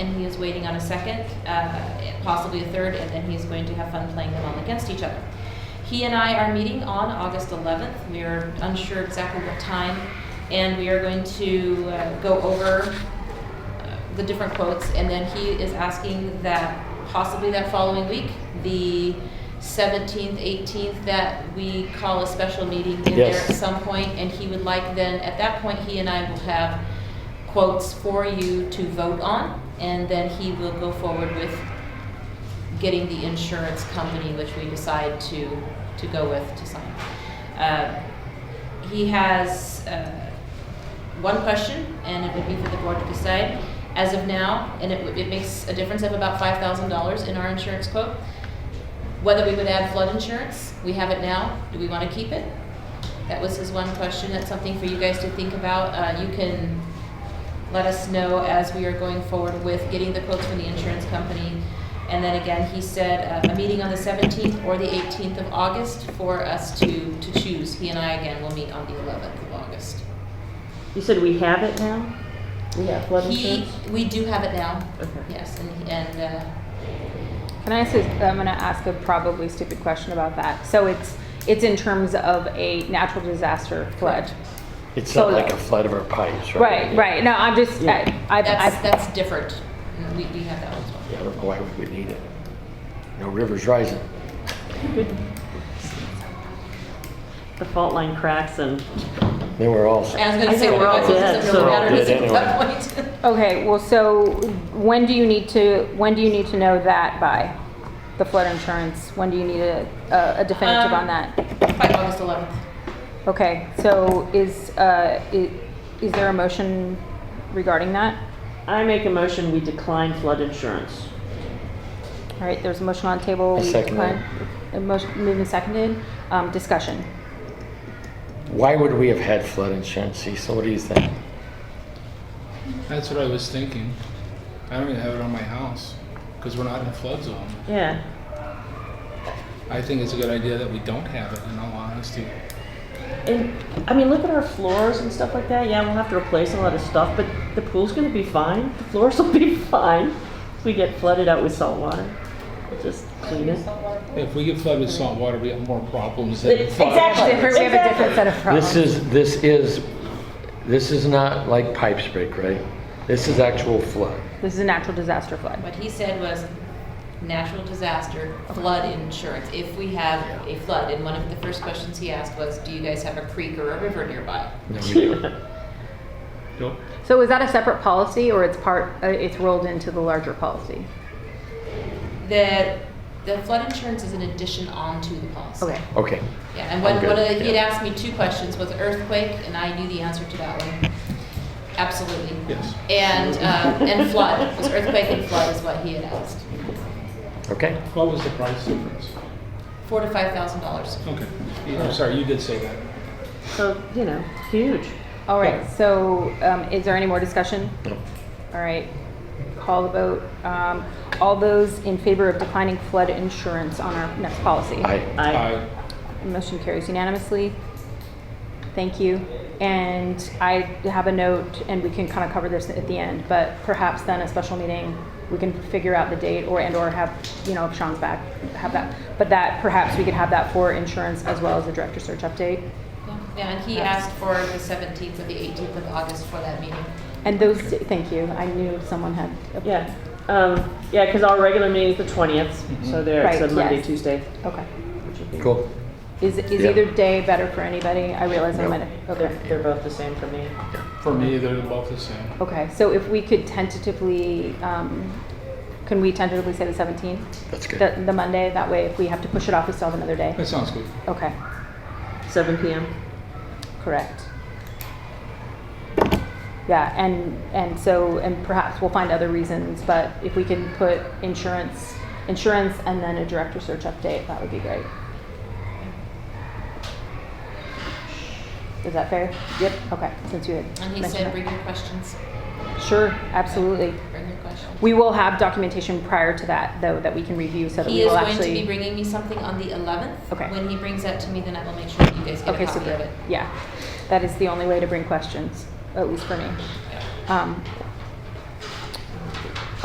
is waiting on a second, uh, possibly a third, and then he's going to have fun playing them all against each other. He and I are meeting on August 11th. We are unsure exactly what time, and we are going to uh, go over uh, the different quotes, and then he is asking that possibly that following week, the 17th, 18th, that we call a special meeting in there Yes. at some point, and he would like then, at that point, he and I will have quotes for you to vote on, and then he will go forward with getting the insurance company, which we decide to, to go with to sign. Uh, He has, uh, one question, and it would be for the board to decide. As of now, and it, would- it makes a difference of about five thousand dollars in our insurance quote. Whether we would add flood insurance, we have it now, do we wanna keep it? That was his one question, that's something for you guys to think about, uh, you can let us know as we are going forward with getting the quotes from the insurance company. And then again, he said, uh, a meeting on the seventeenth or the eighteenth of August for us to, to choose, he and I again will meet on the eleventh of August. You said we have it now? We have flood He, insurance? we do have it now, Okay. yes, and, and, uh, Can I ask, this- I'm gonna ask a probably stupid question about that. So it's, it's in terms of a natural disaster flood. It's not Solar. like a flood of our pipes, right? Right, right, no, I'm just, I, I, that's, I- that's different. Mm, We, we have that one as well. Yeah, I don't know why we would need it. No river's rising. The fault line cracks and Then we're all, I was I gonna say, think we're all what does dead, it so- really matter We're all dead at that point? okay, well, so when do you need to, when do you need to know that by? The flood insurance, when do you need a, a- a definitive Um, on that? By August eleventh. Okay, so is, uh, i- is there a motion regarding that? I make a motion, we decline flood insurance. All right, there's a motion on the table. I We second decline- A motion, moved and seconded, um, discussion. why would we have had flood insurance, Cecil? What do you think? That's what I was thinking. I don't even have it on my house because we're not in a flood zone. Yeah. I think it's a good idea that we don't have it, in all honesty. And, I mean, look at our floors and stuff like that. Yeah, we'll have to replace a lot of stuff, but the pool's gonna be fine. The floors will be fine. If we get flooded out with salt water, we'll just clean it. If we get flooded with salt water, we have more problems than Exactly. flood. Different- We have a different set of This problems. is, this is, this is not like pipes break, right? This is actual flood. This is a natural disaster flood. What he said was natural disaster, flood insurance, if we have a flood. And one of the first questions he asked was, do you guys have a creek or a river nearby? No, we don't. Nope. So is that a separate policy or it's part, uh, it's rolled into the larger policy? The, the flood insurance is an addition onto the policy. Okay. Okay, Yeah, and one, Okay, one of the, he'd yeah. asked me two questions, was earthquake, and I knew the answer to that one. Absolutely. Yes. And, uh, and flood, was earthquake and flood is what he had asked. okay. What was the price difference? Four to five thousand dollars. Okay. Yeah, I'm sorry, you did say that. So, you know, it's huge. All right, so, um, is there any more discussion? No. All right, call the vote. Um, all those in favor of declining flood insurance on our next policy? I, I, Motion carries unanimously. Thank you. And I have a note, and we can kind of cover this at the end, but perhaps then a special meeting, we can figure out the date or, and/or have, you know, if Sean's back, have that. But that, perhaps we could have that for insurance as well as a director search update. Yeah, and he asked for the seventeenth or the eighteenth of August for that meeting. And those, thank you. I knew someone had. a- yeah, um, yeah, because our regular meeting's the twentieth, so there, it's Right, a Monday, yes. Tuesday. Okay. which would be- cool. Is, is Yeah. either day better for anybody? I realize I No. might have, They're, okay. they're both the same for me. For me, they're both the same. Okay, so if we could tentatively, um, can we tentatively say the seventeenth? That's good. The, the Monday, that way if we have to push it off, we still have another day. That sounds good. Okay, Seven PM. correct. Yeah, and, and so, and perhaps we'll find other reasons, but if we can put insurance, insurance and then a director search update, that would be great. Is that fair? Yep. Okay, since you had And he mentioned said, that. bring your questions, Sure, absolutely. bring your questions. We will have documentation prior to that, though, that we can review so that He we is will going to be actually. bringing me something on the eleventh. Okay. When he brings that to me, then I will make sure that you guys get Okay, a copy of super. it. Yeah, that is the only way to bring questions, at least for me. Um,